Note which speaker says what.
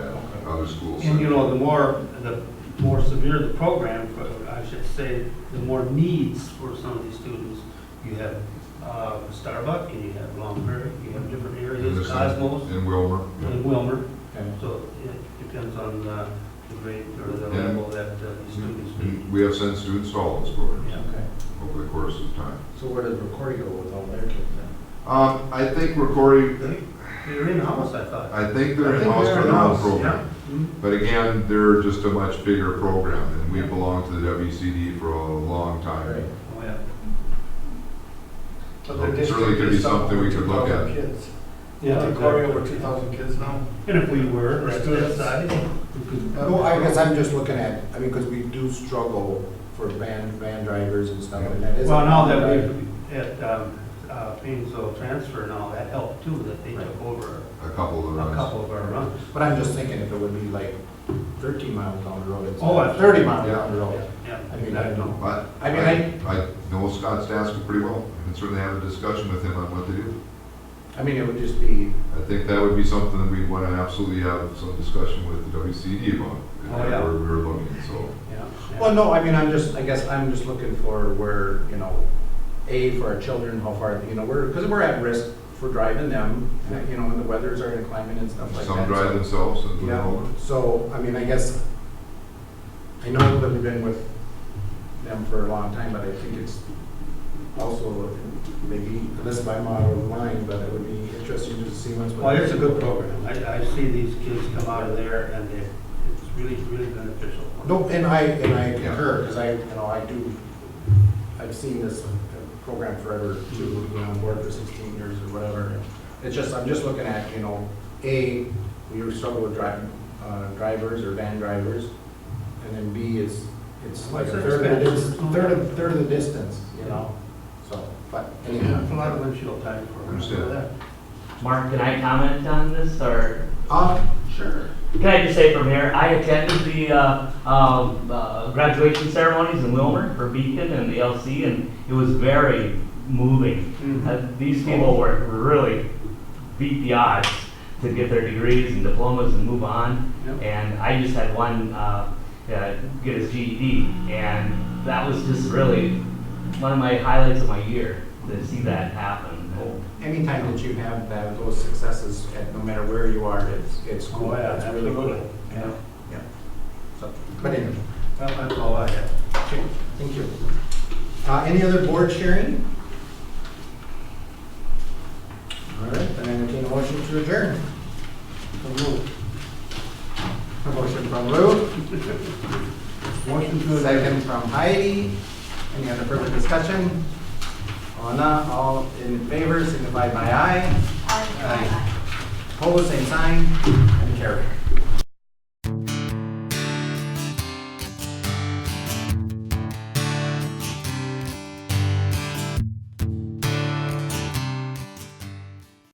Speaker 1: other schools.
Speaker 2: And you know, the more, the more severe the program, for- I should say, the more needs for some of these students. You have uh, Starbuck, and you have Long Prairie, you have different areas, Cosmos,
Speaker 1: In Wilmer.
Speaker 2: and Wilmer.
Speaker 3: Okay.
Speaker 2: So it depends on uh, the grade or the
Speaker 1: Yeah. Mm-hmm.
Speaker 2: level that uh, these students need.
Speaker 1: We have sent students to all those programs
Speaker 2: Yeah.
Speaker 3: Okay.
Speaker 1: over the course of time.
Speaker 3: So where does Recordia go with all their kids then?
Speaker 1: Um, I think Recordia,
Speaker 2: They- They're in-house, I thought.
Speaker 1: I think they're
Speaker 3: I think
Speaker 1: in-house
Speaker 3: they're
Speaker 1: for the whole
Speaker 3: in-house,
Speaker 1: program.
Speaker 2: Mhm.
Speaker 1: But again, they're just a much bigger program, and we belonged to the WCD for a long time.
Speaker 2: Oh, yeah.
Speaker 1: So it certainly could be something we could look at.
Speaker 2: Yeah,
Speaker 3: Recordia over
Speaker 2: exactly.
Speaker 3: two thousand kids now?
Speaker 2: And if we were, at
Speaker 3: Or
Speaker 2: that
Speaker 3: students.
Speaker 2: size, we could.
Speaker 4: No, I guess I'm just looking at, I mean, because we do struggle for van, van drivers and stuff like that. It's a-
Speaker 2: Well, now that we've, at, um, uh, Painesville Transfer and all, that helped too, that they took over
Speaker 1: A couple
Speaker 2: a
Speaker 1: of runs.
Speaker 2: couple of our runs.
Speaker 4: But I'm just thinking if it would be like thirteen miles down the road
Speaker 2: Oh,
Speaker 4: instead
Speaker 2: I-
Speaker 4: of thirty miles down the
Speaker 2: Yeah,
Speaker 4: road. I mean, I
Speaker 2: yeah,
Speaker 4: don't-
Speaker 1: But
Speaker 4: I mean,
Speaker 1: I, I know Scott Stasko pretty well, and certainly have a discussion with him on what to do.
Speaker 4: I mean, it would just be,
Speaker 1: I think that would be something that we'd want to absolutely have some discussion with the WCD about. if
Speaker 2: Oh, yeah.
Speaker 1: We're, we're looking, so.
Speaker 2: yeah.
Speaker 4: well, no, I mean, I'm just, I guess I'm just looking for where, you know, A, for our children, how far, you know, we're, because we're at risk for driving them, you know, when the weathers are climbing and stuff like that.
Speaker 1: Some drive themselves and do their
Speaker 4: Yeah,
Speaker 1: own.
Speaker 4: so, I mean, I guess, I know that we've been with them for a long time, but I think it's also maybe, unless my model of mine, but it would be interesting to see what's.
Speaker 2: Well, it's a good program. I, I see these kids come out of there and they, it's really, really beneficial.
Speaker 4: No, and I, and I concur, because I, you know, I do, I've seen this program forever too, you know, on board for sixteen years or whatever. It's just, I'm just looking at, you know, A, we struggle with driving, uh, drivers or van drivers. And then B is, it's like a third of the, dis- third of, third of the distance, you know, so, but anyhow.
Speaker 2: It's a lot of windshield time for
Speaker 1: Understand.
Speaker 2: that.
Speaker 5: Mark, can I comment on this, or
Speaker 4: Uh, sure.
Speaker 5: can I just say from here, I attended the uh, um, uh, graduation ceremonies in Wilmer for Beacon and the LC, and it was very moving.
Speaker 2: Mhm.
Speaker 5: Uh, These people were were really beat the odds to get their degrees and diplomas and move on.
Speaker 2: Yep.
Speaker 5: And I just had one uh, uh, get his GED, and that was just really one of my highlights of my year, to see that happen.
Speaker 4: Anytime that you have that, those successes, at no matter where you are, it's, it's cool,
Speaker 2: Oh, yeah,
Speaker 4: it's really cool.
Speaker 2: absolutely.
Speaker 4: Yeah, yeah. So, But anyway.
Speaker 2: Well, that's all I have.
Speaker 4: Okay, thank you. Uh, Any other board sharing? All right, then I entertain a motion to adjourn. A motion from Lou. Motion to adjourn. Second from Heidi. Any other further discussion? All not, all in favor, signify by aye. Aye. Hold the same sign, and carry.